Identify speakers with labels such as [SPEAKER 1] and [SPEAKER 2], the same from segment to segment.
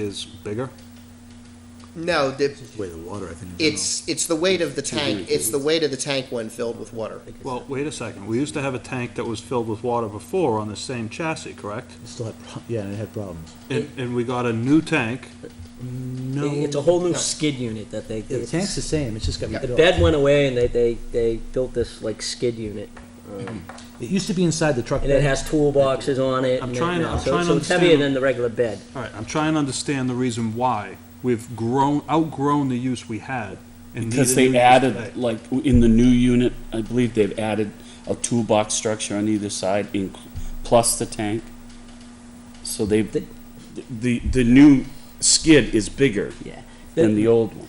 [SPEAKER 1] is bigger?
[SPEAKER 2] No, the,
[SPEAKER 3] Way the water, I think.
[SPEAKER 2] it's, it's the weight of the tank, it's the weight of the tank when filled with water.
[SPEAKER 1] Well, wait a second, we used to have a tank that was filled with water before on the same chassis, correct?
[SPEAKER 3] Still had, pro- yeah, and it had problems.
[SPEAKER 1] And, and we got a new tank,
[SPEAKER 3] No.
[SPEAKER 4] It's a whole new
[SPEAKER 2] No.
[SPEAKER 4] skid unit that they.
[SPEAKER 3] Yeah, the tank's the same, it's just got
[SPEAKER 4] The
[SPEAKER 3] rid of.
[SPEAKER 4] bed went away and they, they, they built this like skid unit. um,
[SPEAKER 3] It used to be inside the truck.
[SPEAKER 4] And it
[SPEAKER 3] bed.
[SPEAKER 4] has toolboxes on it.
[SPEAKER 1] I'm
[SPEAKER 4] and
[SPEAKER 1] trying to-
[SPEAKER 4] everything
[SPEAKER 1] I'm
[SPEAKER 4] else. So-
[SPEAKER 1] trying to
[SPEAKER 4] So it's heavier
[SPEAKER 1] understand-
[SPEAKER 4] than the regular bed.
[SPEAKER 1] all right, I'm trying to understand the reason why we've grown, outgrown the use we had. and
[SPEAKER 5] Because
[SPEAKER 1] need a new
[SPEAKER 5] they
[SPEAKER 1] use
[SPEAKER 5] added,
[SPEAKER 1] today.
[SPEAKER 5] like, in the new unit, I believe they've added a toolbox structure on either side, in, plus the tank. So they,
[SPEAKER 4] The-
[SPEAKER 5] the, the new skid is bigger
[SPEAKER 4] Yeah.
[SPEAKER 5] than the old one.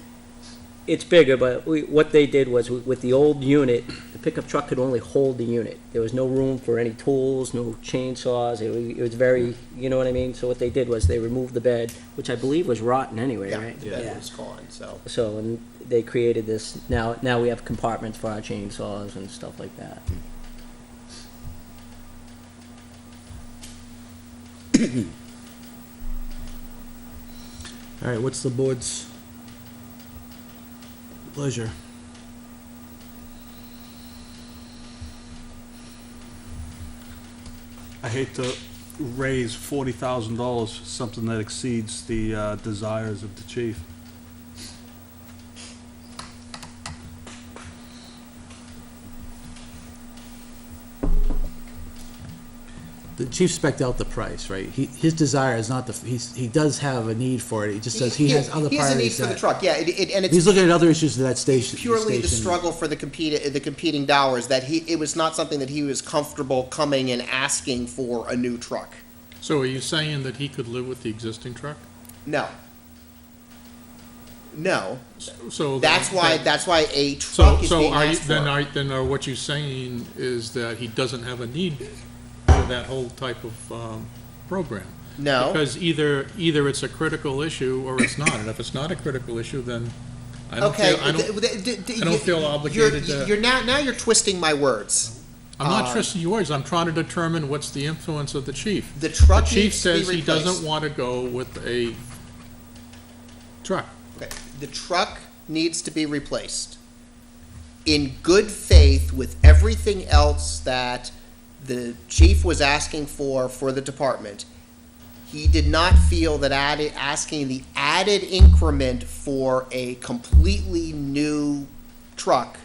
[SPEAKER 4] It's bigger, but we, what they did was with- with the old unit, the pickup truck could only hold the unit. There was no room for any tools, no chainsaws. It was, it was very, you know what I mean? So what they did was they removed the bed, which I believe was rotten anyway,
[SPEAKER 2] Yeah,
[SPEAKER 4] right?
[SPEAKER 2] that was gone, so.
[SPEAKER 4] So, and they created this, now, now we have compartments for our chainsaws and stuff like that.
[SPEAKER 3] All right, what's the board's pleasure?
[SPEAKER 1] I hate to raise forty thousand dollars for something that exceeds the, uh, desires of the chief.
[SPEAKER 3] The chief spec'd out the price, right? He, his desire is not the, he's, he does have a need for it, he just says he has other
[SPEAKER 2] He has a need
[SPEAKER 3] priorities
[SPEAKER 2] for the
[SPEAKER 3] that.
[SPEAKER 2] truck, yeah, it, it, and
[SPEAKER 3] He's
[SPEAKER 2] it's
[SPEAKER 3] looking at other issues of that station.
[SPEAKER 2] purely the
[SPEAKER 3] station.
[SPEAKER 2] struggle for the compete, the competing dollars, that he, it was not something that he was comfortable coming and asking for a new truck.
[SPEAKER 6] So are you saying that he could live with the existing truck?
[SPEAKER 2] No. No,
[SPEAKER 6] So.
[SPEAKER 2] that's
[SPEAKER 6] that-
[SPEAKER 2] why,
[SPEAKER 6] that-
[SPEAKER 2] that's why a
[SPEAKER 6] So,
[SPEAKER 2] truck is
[SPEAKER 6] so
[SPEAKER 2] being
[SPEAKER 6] are you,
[SPEAKER 2] asked
[SPEAKER 6] then
[SPEAKER 2] for.
[SPEAKER 6] are, then are what you're saying is that he doesn't have a need for that whole type of, um, program?
[SPEAKER 2] No,
[SPEAKER 6] Because either, either it's a critical issue or it's not, and if it's not a critical issue, then I don't
[SPEAKER 2] okay.
[SPEAKER 6] feel, I
[SPEAKER 2] th-
[SPEAKER 6] don't,
[SPEAKER 2] th- th- th-
[SPEAKER 6] I don't
[SPEAKER 2] you-
[SPEAKER 6] feel
[SPEAKER 2] you're-
[SPEAKER 6] obligated to-
[SPEAKER 2] You're now, now you're twisting my words.
[SPEAKER 6] I'm not
[SPEAKER 2] uh,
[SPEAKER 6] trusting yours, I'm trying to determine what's the influence of the chief.
[SPEAKER 2] The
[SPEAKER 6] The
[SPEAKER 2] truck
[SPEAKER 6] chief
[SPEAKER 2] needs to be
[SPEAKER 6] says he
[SPEAKER 2] replaced.
[SPEAKER 6] doesn't want to go with a truck.
[SPEAKER 2] Okay, the truck needs to be replaced. In good faith with everything else that the chief was asking for, for the department, he did not feel that added, asking the added increment for a completely new truck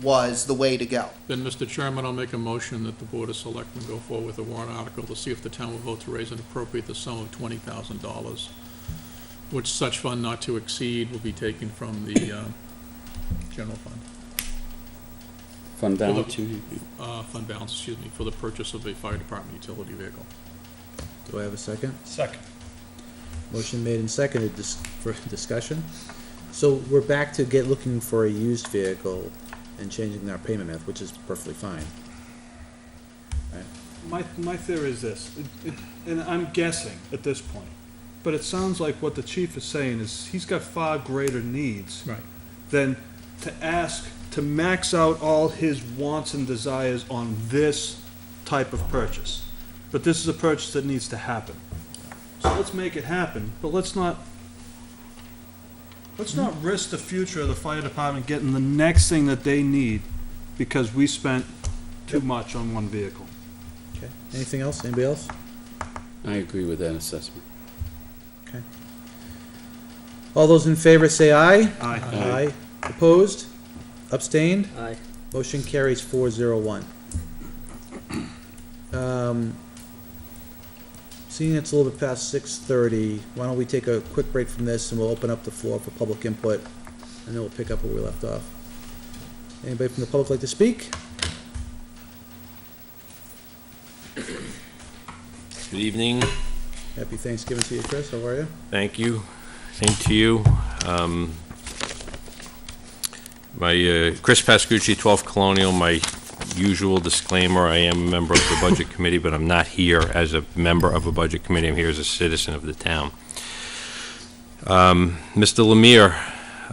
[SPEAKER 2] was the way to go.
[SPEAKER 6] Then, Mr. Chairman, I'll make a motion that the Board of Selectmen go forward with a warrant article to see if the town will vote to raise and appropriate the sum of twenty thousand dollars, which such fund not to exceed will be taken from the, uh, general fund,
[SPEAKER 5] From down
[SPEAKER 6] Hold up.
[SPEAKER 5] to,
[SPEAKER 6] uh, fund balance, excuse me, for the purchase of a fire department utility vehicle.
[SPEAKER 3] Do I have a second?
[SPEAKER 1] Second.
[SPEAKER 3] Motion made and seconded dis- for discussion. So we're back to get, looking for a used vehicle and changing our payment method, which is perfectly fine.
[SPEAKER 1] My, my theory is this, it- it- and I'm guessing at this point, but it sounds like what the chief is saying is he's got far greater needs
[SPEAKER 6] Right.
[SPEAKER 1] than to ask to max out all his wants and desires on this type of purchase. But this is a purchase that needs to happen. So let's make it happen, but let's not, let's not risk the future of the fire department getting the next thing that they need because we spent too much on one vehicle.
[SPEAKER 3] Okay. Anything else? Anybody else?
[SPEAKER 5] I agree with that assessment.
[SPEAKER 3] All those in favor say aye.
[SPEAKER 1] Aye.
[SPEAKER 3] Aye. Opposed? Abstained?
[SPEAKER 4] Aye.
[SPEAKER 3] Motion carries four zero one. Um, Seeing it's a little bit past six thirty, why don't we take a quick break from this and we'll open up the floor for public input, and then we'll pick up where we left off. Anybody from the public like to speak?
[SPEAKER 7] Good evening.
[SPEAKER 3] Happy Thanksgiving to you, Chris, how are you?
[SPEAKER 7] Thank you. Same to you. Um, My, uh, Chris Pascucci, 12 Colonial, my usual disclaimer, I am a member of the Budget Committee, but I'm not here as a member of a Budget Committee. I'm here as a citizen of the town. Um, Mr. Lemire,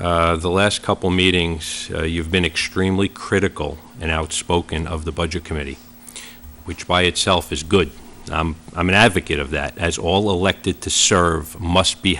[SPEAKER 7] uh, the last couple meetings, uh, you've been extremely critical and outspoken of the Budget Committee, which by itself is good. I'm, I'm an advocate of that, as all elected to serve must be